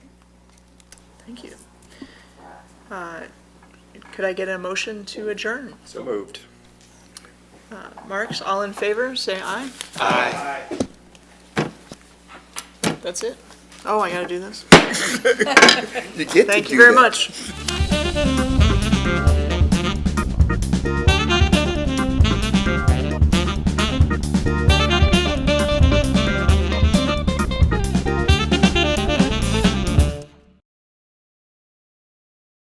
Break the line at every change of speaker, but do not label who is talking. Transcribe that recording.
Thank you. Uh, Could I get a motion to adjourn?
So moved.
Marks, all in favor, say aye. Aye. That's it? Oh, I gotta do this?
You get to
Thank you
do
very
that.
much.